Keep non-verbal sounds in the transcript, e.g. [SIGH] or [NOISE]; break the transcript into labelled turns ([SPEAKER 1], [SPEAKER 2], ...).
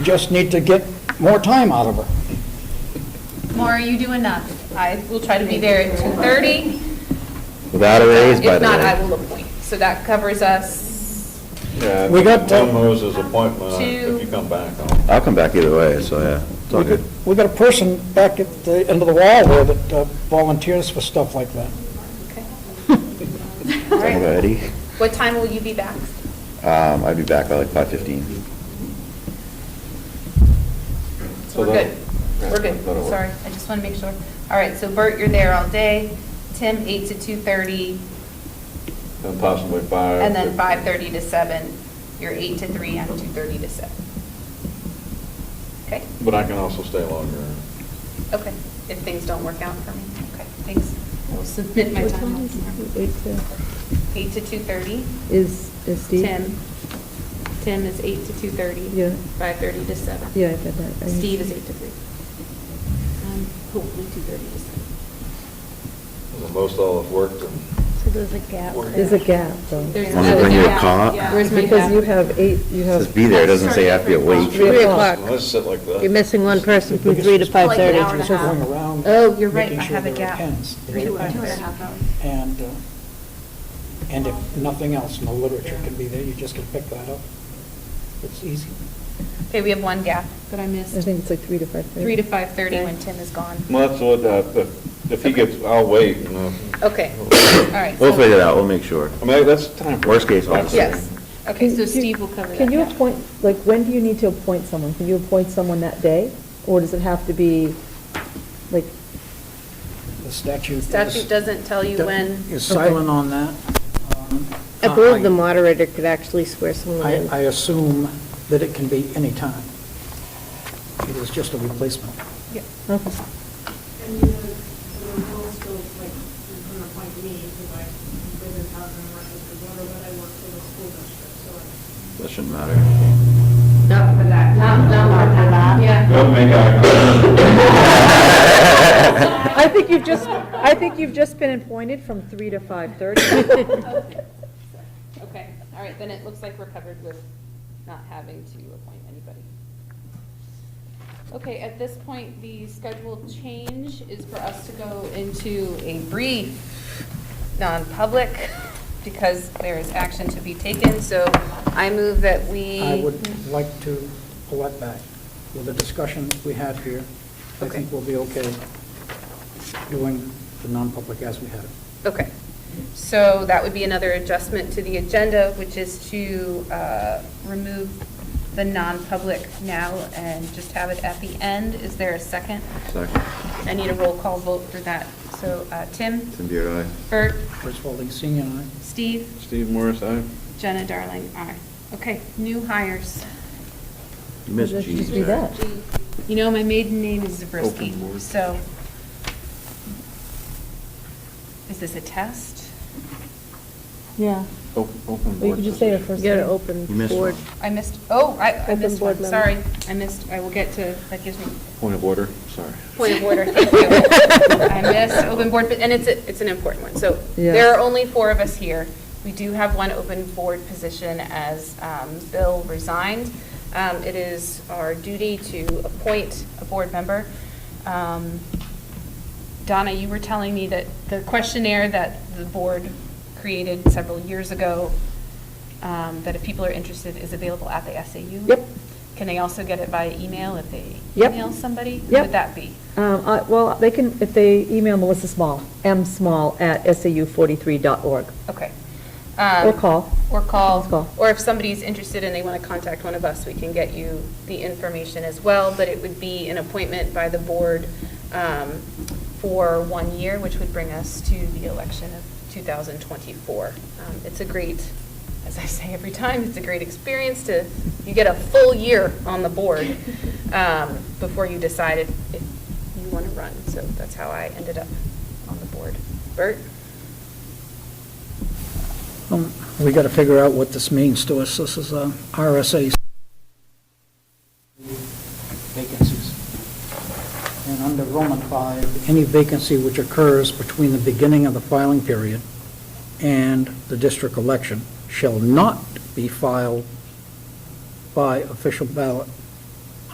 [SPEAKER 1] Just need to get more time out of her.
[SPEAKER 2] Maura, you do enough. I will try to be there at 2:30.
[SPEAKER 3] Without a raise, by
[SPEAKER 2] If
[SPEAKER 3] the
[SPEAKER 2] not, I
[SPEAKER 3] way.
[SPEAKER 2] will appoint. So that covers
[SPEAKER 3] [LAUGHS]
[SPEAKER 2] us.
[SPEAKER 4] Yeah,
[SPEAKER 1] We got to-
[SPEAKER 4] Tom Moses' appointment, if you come back, I'll-
[SPEAKER 3] I'll come back either way, so yeah, it's all
[SPEAKER 1] We
[SPEAKER 3] good.
[SPEAKER 1] got- We got a person back at the end of the wall there that uh, volunteers for stuff like that.
[SPEAKER 2] All
[SPEAKER 3] Talking about
[SPEAKER 2] right.
[SPEAKER 3] Eddie,
[SPEAKER 2] What time will you be back?
[SPEAKER 3] um, I'd be back by like five fifteen.
[SPEAKER 2] So
[SPEAKER 4] So
[SPEAKER 2] We're
[SPEAKER 4] that'll-
[SPEAKER 2] good. We're good.
[SPEAKER 4] that'll work.
[SPEAKER 2] Sorry, I just want to make sure. All right, so Bert, you're there all day. Tim, 8 to 2:30,
[SPEAKER 4] and possibly five.
[SPEAKER 2] and then 5:30 to 7. You're 8 to 3, I'm 2:30 to 7. Okay?
[SPEAKER 4] But I can also stay longer.
[SPEAKER 2] Okay, if things don't work out for me. Okay, thanks. I will submit my
[SPEAKER 5] What
[SPEAKER 2] time.
[SPEAKER 5] time is it? Eight to-
[SPEAKER 2] 8 to 2:30.
[SPEAKER 5] Is, is Steve?
[SPEAKER 2] Tim. Tim is 8 to 2:30.
[SPEAKER 5] Yeah.
[SPEAKER 2] 5:30 to 7.
[SPEAKER 5] Yeah, I got that. I-
[SPEAKER 2] Steve is 8 to 3. Um, Hopefully 2:30 to 7.
[SPEAKER 4] And Most all have worked and
[SPEAKER 6] So there's a gap. there.
[SPEAKER 5] There's a gap, though.
[SPEAKER 2] There's
[SPEAKER 3] Want me to
[SPEAKER 2] another
[SPEAKER 3] bring you a
[SPEAKER 2] gap.
[SPEAKER 3] cot?
[SPEAKER 2] Yeah.
[SPEAKER 5] Where's my Because you have eight, you have.
[SPEAKER 3] Says be there, it doesn't say I have to be awake.
[SPEAKER 5] Three
[SPEAKER 6] Three
[SPEAKER 5] o'clock.
[SPEAKER 6] o'clock.
[SPEAKER 4] let's sit like that.
[SPEAKER 6] You're missing one person from
[SPEAKER 1] Because
[SPEAKER 6] three to
[SPEAKER 1] it's like
[SPEAKER 2] an hour and a
[SPEAKER 6] 5:30.
[SPEAKER 2] half.
[SPEAKER 1] Going around.
[SPEAKER 2] Oh, you're right,
[SPEAKER 1] making
[SPEAKER 2] I
[SPEAKER 1] sure
[SPEAKER 2] have a
[SPEAKER 1] there are
[SPEAKER 2] gap.
[SPEAKER 1] pens, there are
[SPEAKER 2] Two and
[SPEAKER 1] pens.
[SPEAKER 2] a half hours.
[SPEAKER 1] And, uh, and if nothing else, no literature can be there, you just can pick that up. It's easy.
[SPEAKER 2] Okay, we have one gap that I
[SPEAKER 5] I
[SPEAKER 2] missed.
[SPEAKER 5] think it's like three to five thirty.
[SPEAKER 2] 3 to 5:30 when Tim is gone.
[SPEAKER 4] Well, that's what, uh, if- if he gets, I'll wait, you know.
[SPEAKER 2] Okay, all right.
[SPEAKER 3] We'll
[SPEAKER 2] so-
[SPEAKER 3] figure it out, we'll make sure.
[SPEAKER 4] I mean, that's time. for-
[SPEAKER 3] Worst case, I'll-
[SPEAKER 2] Yes. Okay,
[SPEAKER 5] Can
[SPEAKER 2] so
[SPEAKER 5] you-
[SPEAKER 2] Steve will cover that.
[SPEAKER 5] Can you
[SPEAKER 2] gap.
[SPEAKER 5] appoint, like, when do you need to appoint someone? Can you appoint someone that day? Or does it have to be, like,
[SPEAKER 1] The statute. is-
[SPEAKER 2] Statute doesn't tell you when.
[SPEAKER 1] Is silent on that. Um,
[SPEAKER 6] I believe
[SPEAKER 1] I-
[SPEAKER 6] the moderator could actually swear someone
[SPEAKER 1] I,
[SPEAKER 6] in.
[SPEAKER 1] I assume that it can be any time. It is just a replacement.
[SPEAKER 5] okay.
[SPEAKER 7] And the, the rules go like, you're gonna appoint me, because I, live in town and work with the water, but I work for the school district, so I
[SPEAKER 3] That shouldn't matter.
[SPEAKER 2] Not for that. Not, not for that. Yeah.
[SPEAKER 4] Don't make
[SPEAKER 2] [LAUGHS]
[SPEAKER 3] [LAUGHS]
[SPEAKER 4] eye contact.
[SPEAKER 5] [LAUGHS] I think you've just, I think you've just been appointed from three to five
[SPEAKER 3] [LAUGHS]
[SPEAKER 5] thirty.
[SPEAKER 2] Okay, all right, then it looks like we're covered with not having to appoint anybody. Okay, at this point, the scheduled change is for us to go into a brief non-public because there is action to be taken, so I move that we.
[SPEAKER 1] I would like to pull that back. With the discussion we had here, I think we'll be okay doing the non-public as we had it.
[SPEAKER 2] Okay, so that would be another adjustment to the agenda, which is to uh, remove the non-public now and just have it at the end. Is there a second?
[SPEAKER 3] Second.
[SPEAKER 2] I need a roll call vote for that. So uh, Tim,
[SPEAKER 3] Tim Beard,
[SPEAKER 2] Bert,
[SPEAKER 1] First of all, the senior and I,
[SPEAKER 2] Steve,
[SPEAKER 4] Steve Morris, aye.
[SPEAKER 2] Jenna, Darling, aye. Okay, new hires.
[SPEAKER 3] You missed
[SPEAKER 5] Let's
[SPEAKER 3] G's
[SPEAKER 5] just do
[SPEAKER 3] there.
[SPEAKER 5] that.
[SPEAKER 2] You know, my maiden name is
[SPEAKER 4] Open
[SPEAKER 2] Zabriskie,
[SPEAKER 4] word.
[SPEAKER 2] so. Is this a test?
[SPEAKER 5] Yeah.
[SPEAKER 4] O- Open
[SPEAKER 5] Or you
[SPEAKER 4] board
[SPEAKER 5] could just say her
[SPEAKER 4] position.
[SPEAKER 5] first
[SPEAKER 6] You gotta
[SPEAKER 5] name.
[SPEAKER 6] open
[SPEAKER 3] You missed
[SPEAKER 6] board.
[SPEAKER 3] one.
[SPEAKER 2] I missed, oh, I I
[SPEAKER 6] Open
[SPEAKER 2] missed
[SPEAKER 6] board
[SPEAKER 2] one,
[SPEAKER 6] member.
[SPEAKER 2] sorry. I missed, I will get to, that gives me
[SPEAKER 4] Point of order, sorry.
[SPEAKER 2] Point of order, thank you.
[SPEAKER 6] [LAUGHS]
[SPEAKER 2] I missed open board, but, and it's, a- it's an important one. So
[SPEAKER 5] Yeah.
[SPEAKER 2] there are only four of us here. We do have one open board position as um, Bill resigned. Um, It is our duty to appoint a board member. Um, Donna, you were telling me that the questionnaire that the board created several years ago, um, that if people are interested, is available at the SAU?
[SPEAKER 5] Yep.
[SPEAKER 2] Can they also get it via email if they
[SPEAKER 5] Yep.
[SPEAKER 2] email somebody? Who
[SPEAKER 5] Yep.
[SPEAKER 2] Would that be?
[SPEAKER 5] Um, I- Well, they can, if they email Melissa Small, msmall@sau43.org.
[SPEAKER 2] Okay. Um,
[SPEAKER 5] Or call.
[SPEAKER 2] Or
[SPEAKER 5] Let's call.
[SPEAKER 2] call. Or if somebody's interested and they want to contact one of us, we can get you the information as well, but it would be an appointment by the board um, for one year, which would bring us to the election of 2024. Um, It's a great, as I say every time, it's a great experience to, you get a full year on the board um, before you decide if if you want to run. So that's how I ended up on the board. Bert?
[SPEAKER 1] Um, we got to figure out what this means to us. This is uh, RSA vacancies. And under Roman 5, any vacancy which occurs between the beginning of the filing period and the district election shall not be filed by official ballot